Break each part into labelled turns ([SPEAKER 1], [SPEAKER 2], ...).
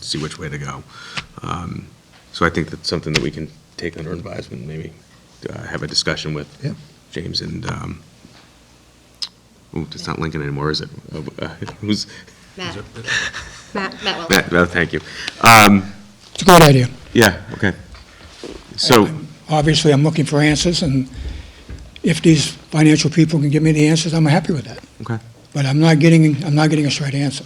[SPEAKER 1] see which way to go. Um, So I think that's something that we can take under advisement, maybe uh, have a discussion with
[SPEAKER 2] Yeah.
[SPEAKER 1] James and, um, ooh, it's not Lincoln anymore, is it? Uh, uh, Who's,
[SPEAKER 3] Matt. Matt, Matt Wells.
[SPEAKER 1] Matt, no, thank you. Um,
[SPEAKER 2] It's a great idea.
[SPEAKER 1] Yeah, okay. So,
[SPEAKER 2] Obviously, I'm looking for answers, and if these financial people can give me the answers, I'm happy with that.
[SPEAKER 1] okay,
[SPEAKER 2] But I'm not getting, I'm not getting a straight answer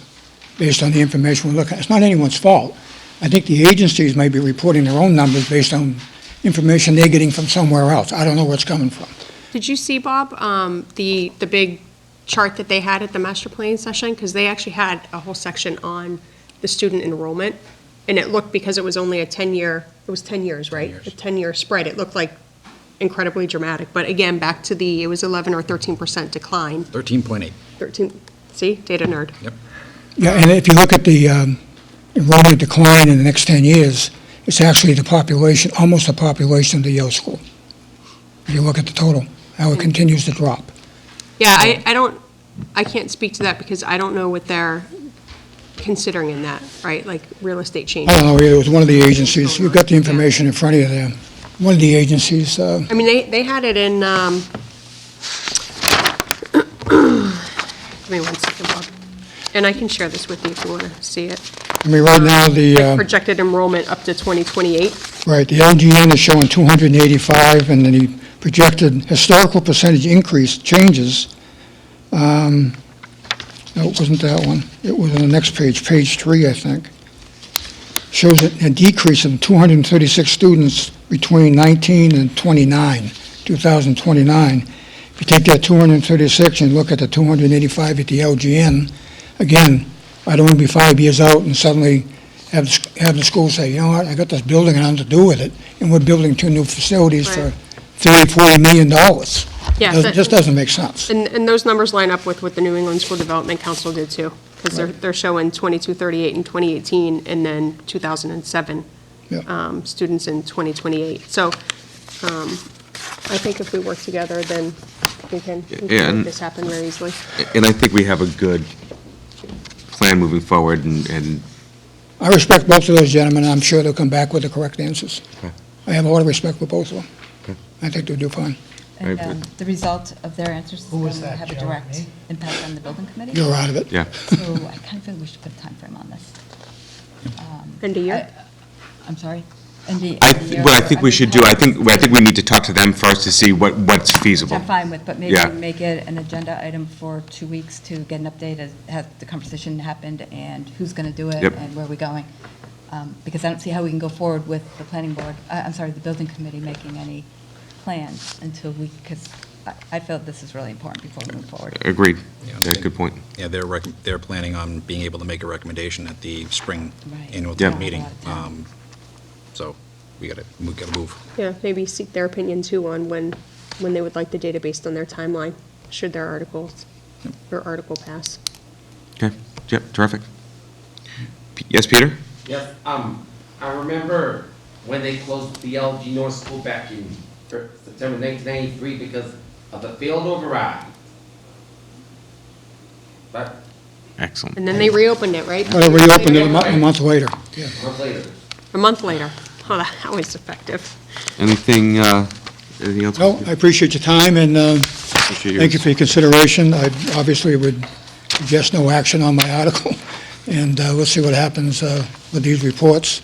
[SPEAKER 2] based on the information we're looking at. It's not anyone's fault. I think the agencies may be reporting their own numbers based on information they're getting from somewhere else. I don't know where it's coming from.
[SPEAKER 3] Did you see, Bob, um, the, the big chart that they had at the master plan session? Because they actually had a whole section on the student enrollment. And it looked, because it was only a 10-year, it was 10 years, right? A 10-year spread. It looked like incredibly dramatic. But again, back to the, it was 11 or 13% decline.
[SPEAKER 4] 13.8.
[SPEAKER 3] 13, see, data nerd.
[SPEAKER 2] Yeah, and if you look at the um, enrollment decline in the next 10 years, it's actually the population, almost the population of the Yale School. If you look at the total, how it continues to drop.
[SPEAKER 3] Yeah, I, I don't, I can't speak to that because I don't know what they're considering in that, right? Like real estate changes.
[SPEAKER 2] I don't know, either. it was one of the agencies, you've got the information in front of you there. One of the agencies, uh,
[SPEAKER 3] I mean, they, they had it in, um, give me one second, Bob. And I can share this with you if you want to see it.
[SPEAKER 2] I mean, right now, the, uh,
[SPEAKER 3] Projected enrollment up to 2028.
[SPEAKER 2] right, the LGN is showing 285, and then the projected historical percentage increase changes. Um, No, it wasn't that one. It was on the next page, page three, I think. Shows a a decrease of 236 students between 19 and 29, 2029. If you take that 236 and look at the 285 at the LGN, again, I don't want to be five years out and suddenly have, the sc- have the school say, you know what, I got this building and I'm to do with it, and we're building two new facilities for
[SPEAKER 3] Right.
[SPEAKER 2] 30, 40 million dollars.
[SPEAKER 3] Yeah,
[SPEAKER 2] Doesn't-
[SPEAKER 3] but-
[SPEAKER 2] Just doesn't make sense.
[SPEAKER 3] And, and those numbers line up with what the New England School Development Council did too, because they're, they're showing 2238 in 2018 and then 2007
[SPEAKER 2] Yeah.
[SPEAKER 3] um, students in 2028. So um, I think if we work together, then we can we
[SPEAKER 1] Yeah,
[SPEAKER 3] can make
[SPEAKER 1] and-
[SPEAKER 3] this happen very easily.
[SPEAKER 1] and I think we have a good plan moving forward and, and
[SPEAKER 2] I respect both of those gentlemen, and I'm sure they'll come back with the correct answers. I have a lot of respect for both of them. I think they'll do fine.
[SPEAKER 5] And
[SPEAKER 1] Right.
[SPEAKER 5] um, the result of their answers is going to have a direct impact on the building committee.
[SPEAKER 2] You're out of it.
[SPEAKER 1] yeah,
[SPEAKER 5] So I kind of feel we should put a timeframe on this.
[SPEAKER 3] End of year?
[SPEAKER 5] I'm sorry. And the-
[SPEAKER 1] I,
[SPEAKER 5] and the-
[SPEAKER 1] what I think we should do, I think, I think we need to talk to them first to see what, what's
[SPEAKER 5] Which
[SPEAKER 1] feasible.
[SPEAKER 5] I'm fine with, but maybe
[SPEAKER 1] Yeah.
[SPEAKER 5] make it an agenda item for two weeks to get an update as, has the conversation happened and who's going to do it
[SPEAKER 1] Yep.
[SPEAKER 5] and where are we going? Um, Because I don't see how we can go forward with the planning board, I- I'm sorry, the building committee making any plans until we, because I feel this is really important before we move forward.
[SPEAKER 1] Agreed.
[SPEAKER 4] Yeah.
[SPEAKER 1] That's a good point.
[SPEAKER 4] Yeah, they're, rec- they're planning on being able to make a recommendation at the spring
[SPEAKER 5] Right.
[SPEAKER 4] annual
[SPEAKER 5] Yeah.
[SPEAKER 4] town meeting.
[SPEAKER 5] Not a lot of
[SPEAKER 4] Um, So we gotta, we gotta move.
[SPEAKER 3] Yeah, maybe seek their opinion too on when, when they would like the data based on their timeline, should their articles, or article pass.
[SPEAKER 1] Okay, yep, terrific. P- Yes, Peter?
[SPEAKER 6] Yes, um, I remember when they closed the LG North School back in er, September nineteen ninety-three because of the failed override. But,
[SPEAKER 1] Excellent.
[SPEAKER 3] And then they reopened it, right?
[SPEAKER 2] But I reopened it a month, a month later.
[SPEAKER 6] months later.
[SPEAKER 3] A month later. Oh, that was effective.
[SPEAKER 1] Anything, uh, anything else?
[SPEAKER 2] No, I appreciate your time, and uh,
[SPEAKER 1] Appreciate your-
[SPEAKER 2] thank you for your consideration. I obviously would suggest no action on my article, and uh, we'll see what happens uh, with these reports.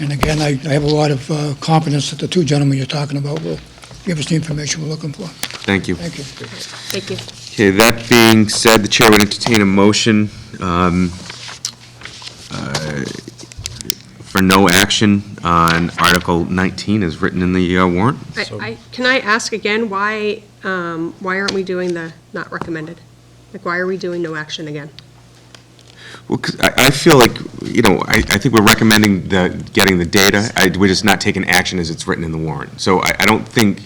[SPEAKER 2] And again, I I have a lot of uh, confidence that the two gentlemen you're talking about will give us the information we're looking for.
[SPEAKER 1] Thank you.
[SPEAKER 2] Thank you.
[SPEAKER 3] Thank you.
[SPEAKER 1] Okay, that being said, the chair would entertain a motion um, uh, for no action on Article 19 as written in the uh, warrant.
[SPEAKER 3] I, I, can I ask again, why, um, why aren't we doing the not recommended? Like, why are we doing no action again?
[SPEAKER 1] Well, 'cause I, I feel like, you know, I, I think we're recommending the, getting the data. I, we're just not taking action as it's written in the warrant. So I, I don't think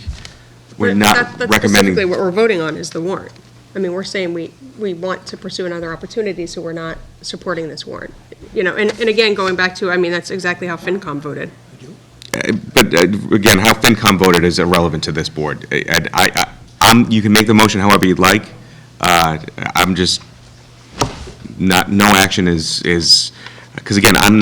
[SPEAKER 1] we're
[SPEAKER 3] But
[SPEAKER 1] not
[SPEAKER 3] that- that's
[SPEAKER 1] recommending.
[SPEAKER 3] Specifically, what we're voting on is the warrant. I mean, we're saying we, we want to pursue another opportunity, so we're not supporting this warrant. You know, and, and again, going back to, I mean, that's exactly how FinCom voted.
[SPEAKER 1] But uh, again, how FinCom voted is irrelevant to this board. I- I, I, I'm, you can make the motion however you'd like. Uh, I'm just, not, no action is, is, because again, I'm,